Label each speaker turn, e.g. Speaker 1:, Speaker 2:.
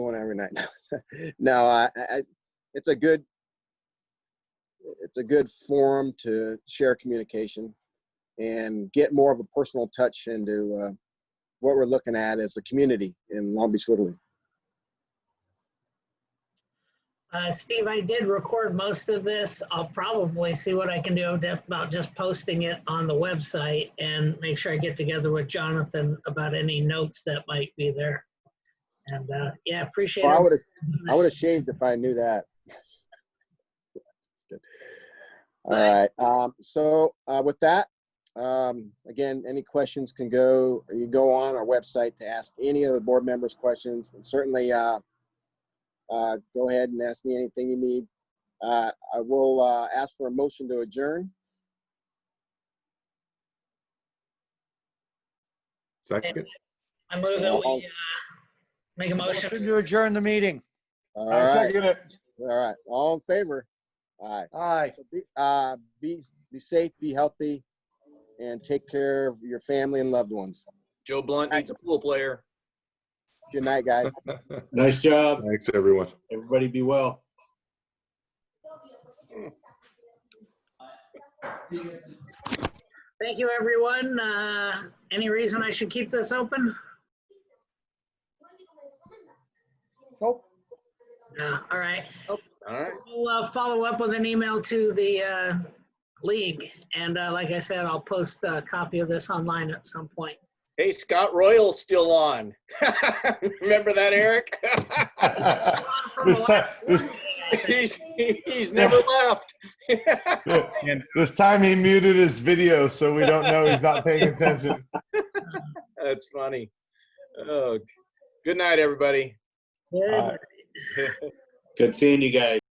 Speaker 1: one every night. no, I, I, it's a good, it's a good forum to share communication and get more of a personal touch into uh, what we're looking at as a community in Long Beach Little League.
Speaker 2: Uh, Steve, I did record most of this. I'll probably see what I can do about just posting it on the website and make sure I get together with Jonathan about any notes that might be there. And uh, yeah, appreciate it.
Speaker 1: Well, I would have, I would have shaved if I knew that. Just kidding. All right. Um, so uh, with that, um, again, any questions can go. You go on our website to ask any of the board members questions, and certainly. Uh, uh, go ahead and ask me anything you need. Uh, I will uh, ask for a motion to adjourn.
Speaker 3: Second,
Speaker 2: I move that we uh, make a
Speaker 4: Motion
Speaker 2: motion.
Speaker 4: to adjourn the meeting.
Speaker 1: All
Speaker 5: I
Speaker 1: right,
Speaker 5: second it.
Speaker 1: all right, all in favor? All
Speaker 4: Aye.
Speaker 1: right, so be, uh, be, be safe, be healthy, and take care of your family and loved ones.
Speaker 6: Joe Blunt needs a pool player.
Speaker 1: Good night, guys.
Speaker 5: Nice job.
Speaker 3: thanks, everyone.
Speaker 5: Everybody be well.
Speaker 2: Thank you, everyone. Uh, Any reason I should keep this open?
Speaker 4: Nope.
Speaker 2: No, Uh, all right.
Speaker 6: All right.
Speaker 2: We'll uh, follow up with an email to the uh, league. And uh, like I said, I'll post a copy of this online at some point.
Speaker 6: Hey, Scott Royal's still on. Remember that, Eric?
Speaker 2: From the
Speaker 7: This time,
Speaker 2: last
Speaker 7: this,
Speaker 2: board meeting, I think.
Speaker 6: he's, he's never left.
Speaker 7: this time he muted his video, so we don't know he's not paying attention.
Speaker 6: That's funny. Oh, good night, everybody.
Speaker 2: Good.
Speaker 7: Uh,
Speaker 5: Good seeing you guys.